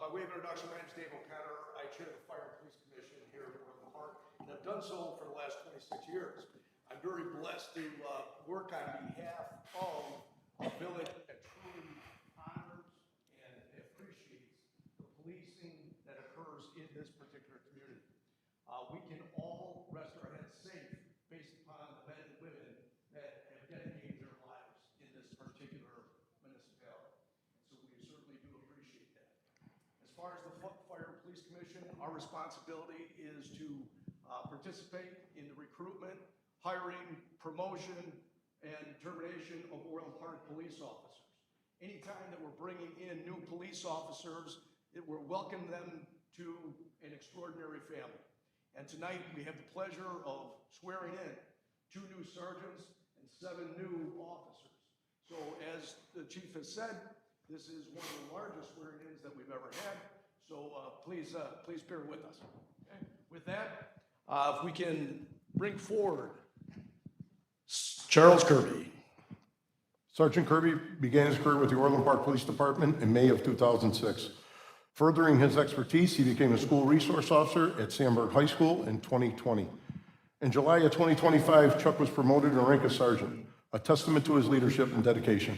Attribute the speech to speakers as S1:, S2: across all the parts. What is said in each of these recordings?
S1: Uh, introduction, my name is Dave O'Connor. I chair the Fire and Police Commission here in Orland Park, and I've done so for the last 26 years. I'm very blessed to uh, work on behalf of a village that truly honors and appreciates the policing that occurs in this particular community. Uh, We can all rest our heads safe based upon the men and women that have dedicated their lives in this particular municipality. So we certainly do appreciate that. As far as the Fu- Fire and Police Commission, our responsibility is to uh, participate in the recruitment, hiring, promotion, and termination of Orland Park police officers. Anytime that we're bringing in new police officers, it- we're welcoming them to an extraordinary family. And tonight, we have the pleasure of swearing in two new sergeants and seven new officers. So as the chief has said, this is one of the largest swearing-ins that we've ever had, so uh, please, uh, please bear with us. okay? With that, uh, if we can bring forward Charles Kirby.
S2: Sergeant Kirby began his career with the Orland Park Police Department in May of 2006. Furthering his expertise, he became a school resource officer at Sandberg High School in 2020. In July of 2025, Chuck was promoted in rank of sergeant, a testament to his leadership and dedication.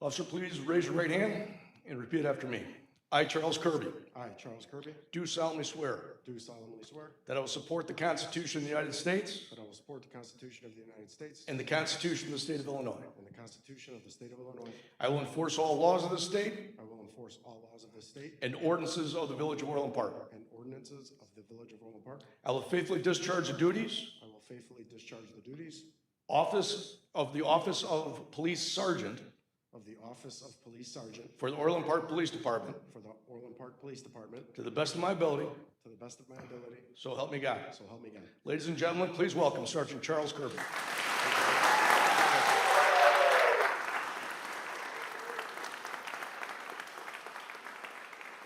S1: Officer, please raise your right hand and repeat after me. I, Charles Kirby,
S3: I, Charles Kirby,
S1: do solemnly swear
S3: do solemnly swear
S1: that I will support the Constitution of the United States
S3: that I will support the Constitution of the United States
S1: and the Constitution of the State of Illinois.
S3: and the Constitution of the State of Illinois.
S1: I will enforce all laws of the state
S3: I will enforce all laws of this state
S1: and ordinances of the Village of Orland Park.
S3: and ordinances of the Village of Orland Park.
S1: I will faithfully discharge the duties
S3: I will faithfully discharge the duties
S1: Office of the Office of Police Sergeant
S3: of the Office of Police Sergeant
S1: for the Orland Park Police Department
S3: for the Orland Park Police Department
S1: to the best of my ability,
S3: to the best of my ability,
S1: so help me God.
S3: so help me God.
S1: Ladies and gentlemen, please welcome Sergeant Charles Kirby.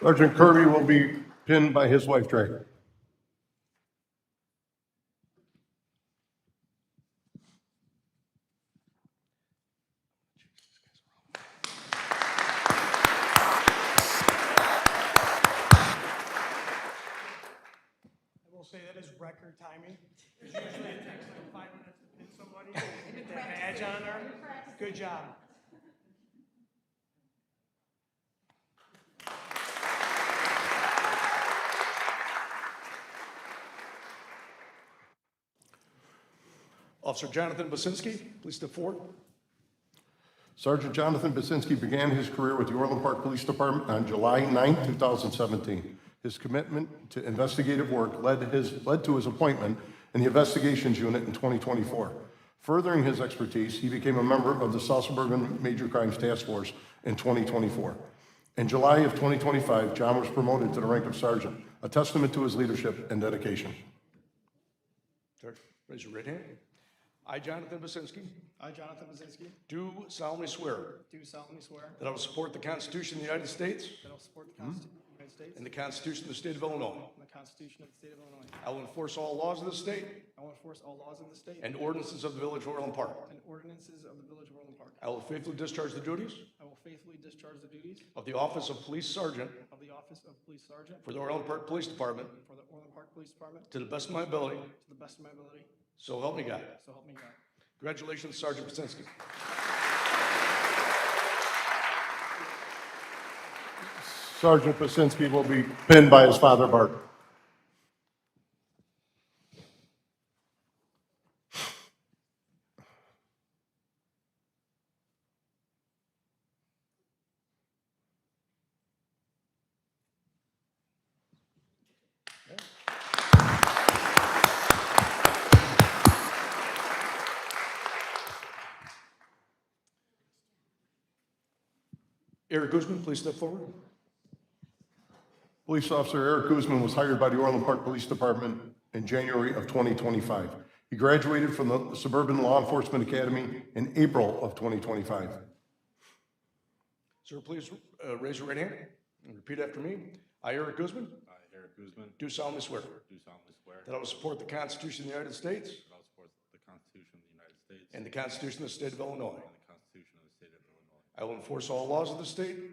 S2: Sergeant Kirby will be pinned by his wife, Drake.
S4: I will say that is record timing. 'cause Usually it takes like five minutes to pin somebody, get that badge on there. Good job.
S1: Officer Jonathan Basinski, please step forward.
S2: Sergeant Jonathan Basinski began his career with the Orland Park Police Department on July 9, 2017. His commitment to investigative work led his, led to his appointment in the Investigations Unit in 2024. Furthering his expertise, he became a member of the South Suburban Major Crimes Task Force in 2024. In July of 2025, John was promoted to the rank of sergeant, a testament to his leadership and dedication.
S1: Sir, Raise your right hand. I, Jonathan Basinski,
S5: I, Jonathan Bazinski,
S1: do solemnly swear
S5: do solemnly swear
S1: that I will support the Constitution of the United States
S5: that I will support the Constitution of the United States
S1: Hmm? and
S5: and
S1: the Constitution of the State of Illinois.
S5: the Constitution of the State of Illinois.
S1: I will enforce all laws of the state
S5: I will enforce all laws of the state
S1: and ordinances of the Village of Orland Park.
S5: and ordinances of the Village of Orland Park.
S1: I will faithfully discharge the duties
S5: I will faithfully discharge the duties
S1: of the Office of Police Sergeant
S5: of the Office of Police Sergeant
S1: for the Orland Park Police Department
S5: for the Orland Park Police Department
S1: to the best of my ability,
S5: to the best of my ability,
S1: so help me God.
S5: so help me God.
S1: Congratulations, Sergeant Pasinski.
S2: Sergeant Basinski will be pinned by his father, Bart.
S1: Eric Guzman, please step forward.
S2: Police Officer Eric Guzman was hired by the Orland Park Police Department in January of 2025. He graduated from the Suburban Law Enforcement Academy in April of 2025.
S1: Sir, please uh, raise your right hand and repeat after me. I, Eric Guzman,
S6: I, Eric Guzman,
S1: do solemnly swear
S6: do solemnly swear
S1: that I will support the Constitution of the United States
S6: that I will support the Constitution of the United States
S1: and
S6: and
S1: the Constitution of the State of Illinois.
S6: the Constitution of the State of Illinois.
S1: I will enforce all laws of the state